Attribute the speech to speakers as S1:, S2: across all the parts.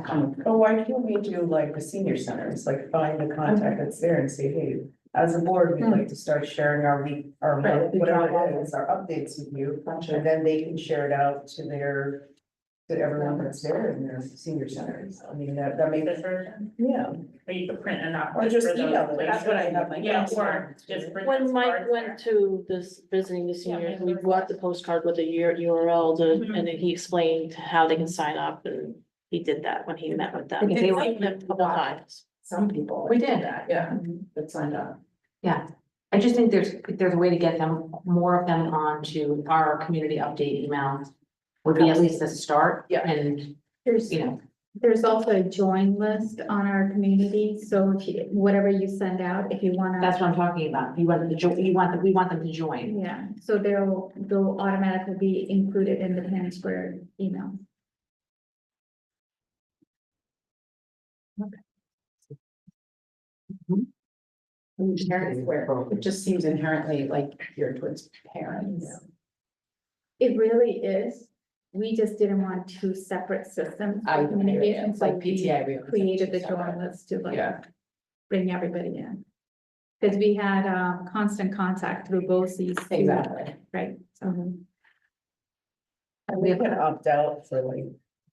S1: kind of,
S2: But why can't we do like the senior centers, like find the contact that's there and say, hey, as a board,
S3: Hmm.
S2: we'd like to start sharing our week, our
S1: Right,
S2: month,
S1: the
S2: whatever
S1: drop-off.
S2: it is, our updates with you.
S1: Gotcha.
S2: And then they can share it out to their, to everyone that's there in their senior centers. I mean, that, that
S4: this
S2: makes,
S4: version,
S2: yeah.
S4: or you could print enough.
S2: Or just
S4: for those
S2: email it.
S4: places.
S2: That's what I have, like,
S4: Yeah,
S2: that's
S4: or
S2: fine.
S4: just print.
S5: When
S4: those
S5: Mike
S4: cards
S5: went
S4: there.
S5: to this visiting the seniors, we bought the postcard with the year URL to,
S4: Mhm.
S5: and then he explained how they can sign up and he did that when he met with them.
S1: Because
S5: He
S1: they
S5: met them a couple times.
S1: some people.
S5: We did that, yeah.
S1: That signed up. Yeah, I just think there's, there's a way to get them, more of them onto our community update email. Would be at least a start.
S2: Yeah.
S1: And,
S6: There's,
S1: you know,
S6: there's also a join list on our community, so if you, whatever you send out, if you wanna.
S1: that's what I'm talking about. You want them to join, you want, them- we want them to join.
S6: Yeah, so they'll, they'll automatically be included in the Hanover Square email.
S3: Parents where it just seems inherently like you're towards parents.
S6: It really is, we just didn't want two separate systems. for
S3: I,
S6: communication,
S3: it's
S6: so
S3: like
S6: we
S3: PTI. we always have
S6: Created
S3: two
S6: the join
S3: separate.
S6: list to like
S3: Yeah,
S6: bring everybody in. Cause we had, um, constant contact through both these. two, Uh-huh.
S3: exactly.
S6: Right, so.
S1: Mhm.
S2: And they can opt out for like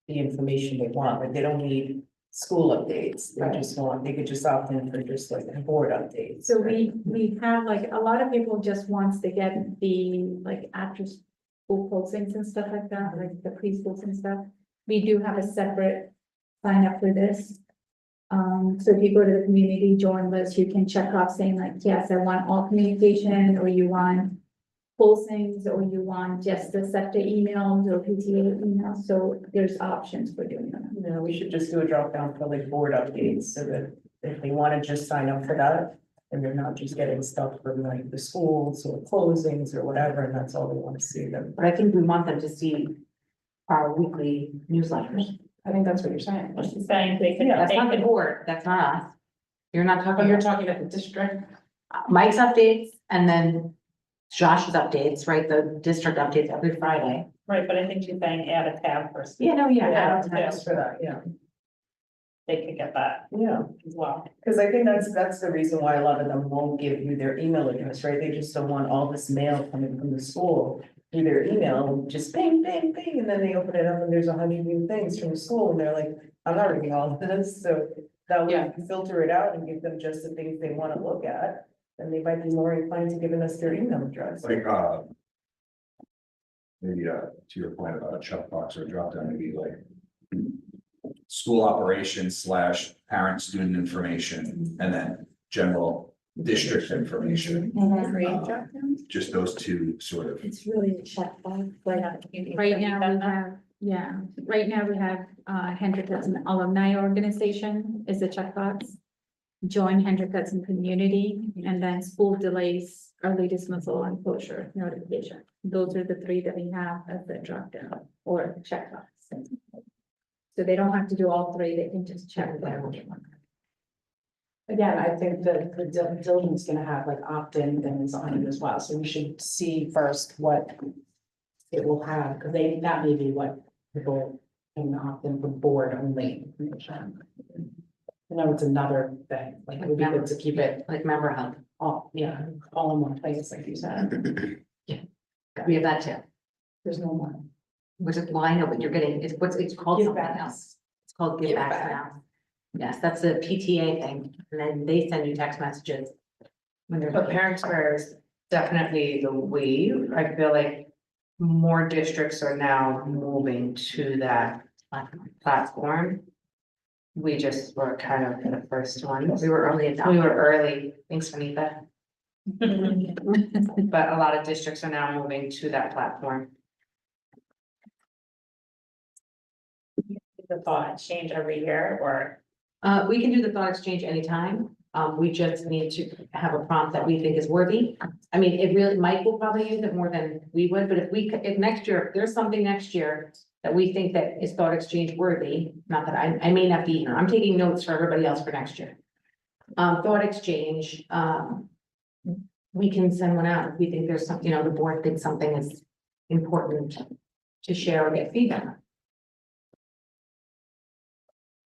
S2: the information they want, like they don't need school updates.
S3: Right.
S2: They just want, they could just opt in for just like the board updates.
S6: So we, we have like, a lot of people just wants to get the, like, after school postings and stuff like that, like the preschools and stuff. We do have a separate sign up for this. Um, so if you go to the community join list, you can check off saying like, yes, I want all communication, or you want postings, or you want just the SEPTA emails or PTA emails, so there's options for doing that.
S2: No, we should just do a drop down for like board updates so that if they want to just sign up for that. And they're not just getting stuff from like the schools or closings or whatever, and that's all they want to see them.
S1: But I think we want them to see our weekly newsletters.
S3: I think that's what you're saying.
S4: Well, She's saying they could,
S1: That's
S4: they
S1: not the
S4: could,
S1: board, that's not us. Oh, You're not
S3: But
S1: talking,
S3: you're
S1: about
S3: talking about the district.
S1: Mike's updates and then Josh's updates, right? The district updates every Friday.
S4: right, but I think she's saying add a tab for,
S1: Yeah, no, yeah.
S2: Yeah,
S1: advertise.
S2: yes, for that, yeah,
S4: they could get that
S2: yeah,
S4: as well.
S2: because I think that's, that's the reason why a lot of them won't give you their email address, right? They just don't want all this mail coming from the school. Through their email, just bing, bing, bing, and then they open it up and there's a hundred new things from the school and they're like, I'm not reading all of this, so. That way
S3: Yeah.
S2: we can filter it out and give them just the things they want to look at, and they might be more inclined to giving us their email address.
S7: Like, uh. Maybe, uh, to your point about a checkbox or a drop down, maybe like. School operations slash parent student information and then general district information,
S6: Right.
S2: Mm-hmm.
S7: just those two sort of.
S6: It's really a checkbox, like,
S4: You- you
S6: Right
S4: could
S6: now,
S4: do
S6: we
S4: that.
S6: have, yeah, right now we have, uh, Hendrick Hudson Alumni Organization is a checkbox. Join Hendrick Hudson Community and then school delays, early dismissal and closure notification. Those are the three that we have as the dropdown or checkbox. So they don't have to do all three, they can just check them.
S3: Again, I think that the dil- diligence is gonna have like opt-in things on it as well, so we should see first what. It will have, because they, that may be what people can opt-in for board only. I know it's another thing, like it would be good to keep it
S1: Like member hub.
S3: all, yeah, all in one place, like you said,
S1: We have that too.
S3: there's no one.
S1: Which is, well, I know, but you're getting, it's, what's, it's called
S3: Give
S1: something
S3: back.
S1: else. It's called give
S3: Give
S1: back
S3: back.
S1: now. Yes, that's a PTA thing, and then they send you text messages. When they're.
S8: But parent square is definitely the wave. I feel like more districts are now moving to that
S1: platform.
S8: platform. We just were kind of the first ones.
S1: We were early
S8: We
S1: adopters.
S8: were early, thanks Anita, but a lot of districts are now moving to that platform.
S4: The thought change every year or
S1: Uh, we can do the thought exchange anytime. Um, we just need to have a prompt that we think is worthy. I mean, it really, Mike will probably use it more than we would, but if we, c- if next year, if there's something next year that we think that is thought exchange worthy, not that I, I may not be here, I'm taking notes for everybody else for next year. Um, thought exchange, um, we can send one out if we think there's some, you know, the board thinks something is important to share or get feedback.